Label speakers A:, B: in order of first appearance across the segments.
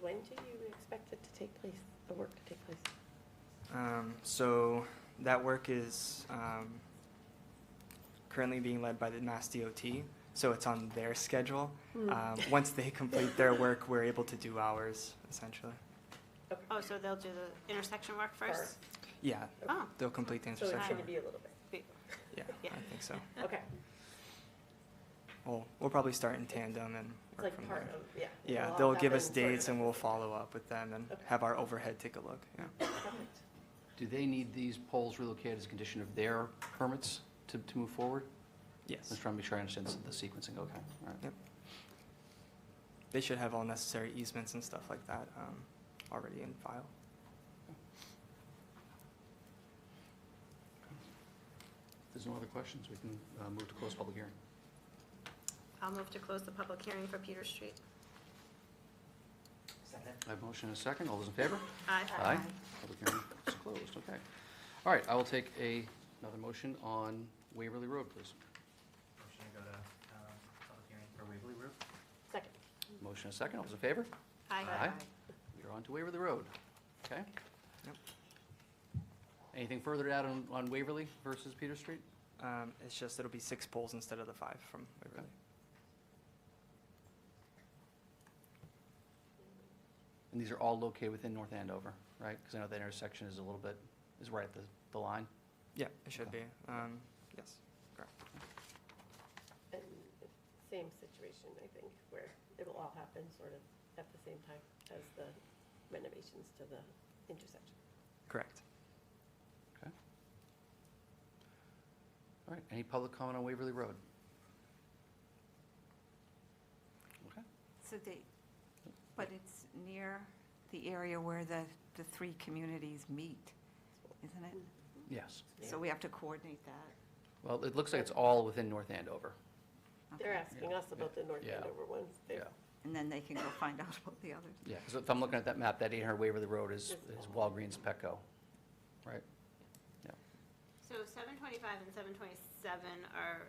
A: When do you expect it to take place, the work to take place?
B: Um, so that work is um, currently being led by the Mass DOT, so it's on their schedule.
A: Hmm.
B: Um, once they complete their work, we're able to do ours, essentially.
C: Oh, so they'll do the intersection work first?
B: Yeah,
C: Oh,
B: they'll complete the
A: So it's
B: intersection.
A: going to be a little bit,
C: be-
B: Yeah,
C: yeah.
B: I think so.
A: okay.
B: We'll, we'll probably start in tandem and
A: It's
B: work
A: like
B: from
A: part
B: there.
A: of, yeah.
B: Yeah,
A: it'll all
B: they'll give
A: happen
B: us
A: sort of
B: dates and we'll follow up with them and
A: Okay.
B: have our overhead take a look, yeah.
A: Perfect.
D: Do they need these poles relocated as a condition of their permits to, to move forward?
B: Yes,
D: Just trying to make sure I understand the sequencing, okay, all right.
B: they should have all necessary easements and stuff like that um, already in file.
D: If there's no other questions, we can uh, move to close public hearing.
C: I'll move to close the public hearing for Peter Street.
D: I have a motion and a second, all those in favor?
C: Aye.
D: Public hearing is closed, okay. All right, I will take a, another motion on Waverly Road, please.
E: Motion to go to um, public hearing for Waverly Road.
A: Second.
D: Motion and a second, all those in favor?
C: Aye.
D: We're on to Waverly Road, okay?
B: Yep.
D: Anything further to add on, on Waverly versus Peter Street?
B: Um, it's just it'll be six poles instead of the five from Waverly.
D: And these are all located within North Andover, right? Because I know that intersection is a little bit, is right at the, the line.
B: Yeah, it should
D: Okay.
B: be. Um, yes.
A: And Same situation, I think, where it'll all happen sort of at the same time as the renovations to the intersection.
B: Correct.
D: All right, any public comment on Waverly Road? Okay,
F: So they, but it's near the area where the, the three communities meet, isn't it?
D: yes.
F: So we have to coordinate that.
D: Well, it looks like it's all within North Andover.
A: They're
F: Okay.
A: asking us about the North
D: Yeah.
A: Andover ones. They're-
D: Yeah,
F: And then they can go find out about the others.
D: yeah, because if I'm looking at that map, that 800 Waverly Road is, is Walgreens Petco, right?
C: So seven twenty-five and seven twenty-seven are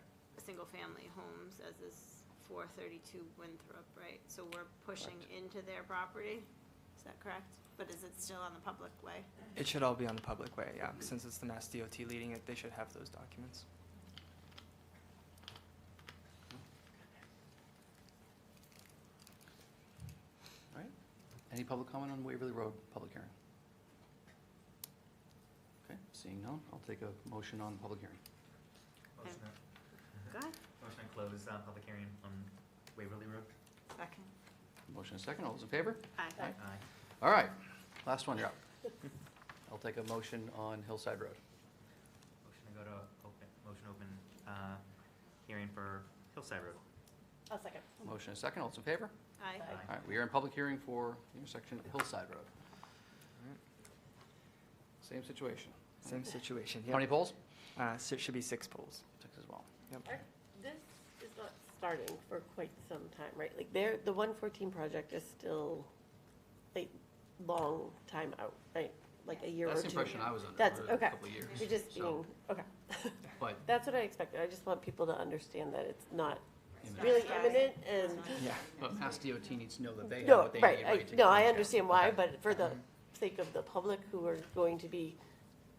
C: single-family homes, as is four thirty-two Winthrop, right? So we're pushing
D: Correct.
C: into their property, is that correct? But is it still on the public way?
B: It should all be on the public way, yeah. Since it's the Mass DOT leading it, they should have those documents.
D: All right. Any public comment on Waverly Road public hearing? Okay, seeing none, I'll take a motion on public hearing.
E: Motion to,
C: Go ahead.
E: motion to close uh, public hearing on Waverly Road.
F: Second.
D: Motion and second, all those in favor?
C: Aye.
E: Aye.
D: All right, last one, you're up. I'll take a motion on Hillside Road.
E: Motion to go to open, motion to open uh, hearing for Hillside Road.
A: I'll second.
D: Motion and second, all those in favor?
C: Aye.
E: Aye.
D: All right, we are in public hearing for the intersection of Hillside Road. Same situation.
B: Same situation,
D: How many
B: yeah.
D: polls?
B: Uh, so it should be six poles.
D: Six as well.
B: Yep.
A: Are- This is not starting for quite some time, right? Like, there, the 114 project is still, like, long time out, right? Like, a year or two.
D: That's the impression I was under
A: That's-
D: for a
A: okay.
D: couple of years.
A: You're just
D: so-
A: being, okay.
D: But,
A: That's what I expected. I just want people to understand that it's not
D: you know,
A: really
C: Right.
A: imminent and,
B: Yeah.
D: but Mass DOT needs to know that they have
A: no,
D: what they need,
A: right,
D: right?
A: I,
D: to
A: no, I
D: communicate.
A: understand why,
D: Okay.
A: but for the sake of the public who are going to be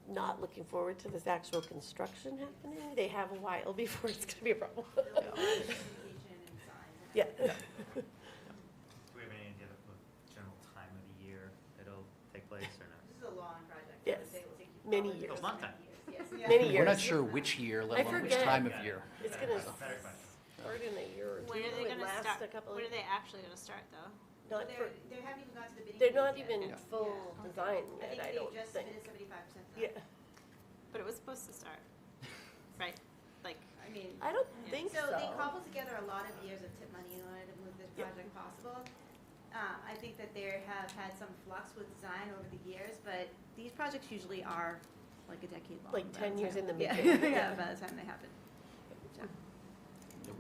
A: not looking forward to this actual construction happening, they have a while before it's gonna be a problem. Yeah.
E: Do we have any idea of the general time of the year it'll take place or not?
G: This is a long project.
A: Yes.
G: They will take you
A: Many
G: probably
A: years.
E: A long time.
G: years, yes.
A: Many
D: We're not
A: years.
D: sure which
A: I
D: year, let alone which
A: forget.
D: time of year.
A: It's
E: Better
A: gonna
E: question, Better question.
A: start in a year or two.
C: When are
A: It
C: they gonna
A: lasts a
C: start,
A: couple
C: when
A: of-
C: are they actually gonna start, though?
A: Not
G: They're,
A: for,
G: they haven't even got to the bidding.
A: they're
G: phase
A: not
G: yet.
A: even
D: Yeah.
A: full
G: Yeah.
A: design
G: I
A: yet,
G: think
A: I
G: they
A: don't
G: just
A: think.
G: submitted seventy-five percent.
A: Yeah,
C: But it was supposed to start, right? Like,
G: I mean,
A: I don't
C: Yeah.
A: think
G: so
A: so.
G: they cobbled together a lot of years of tip money in order to move this
A: Yeah.
G: project possible. Uh, I think that they have had some flux with design over the years, but these projects usually are like a decade long.
A: Like
G: by the
A: 10 years
G: time-
A: in the
G: yeah,
A: making.
G: Yeah, by the time they happen. So,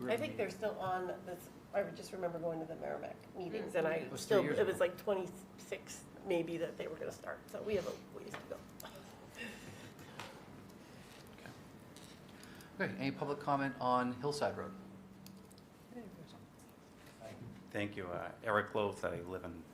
A: I think they're still on this, I just remember going to the Merrimack meetings and I
D: It was three
A: still,
D: years
A: it
D: ago.
A: was like twenty-six maybe that they were gonna start, so we have a ways to go.
D: Okay, any public comment on Hillside Road?
H: Thank you. Uh, Eric Loth, I live in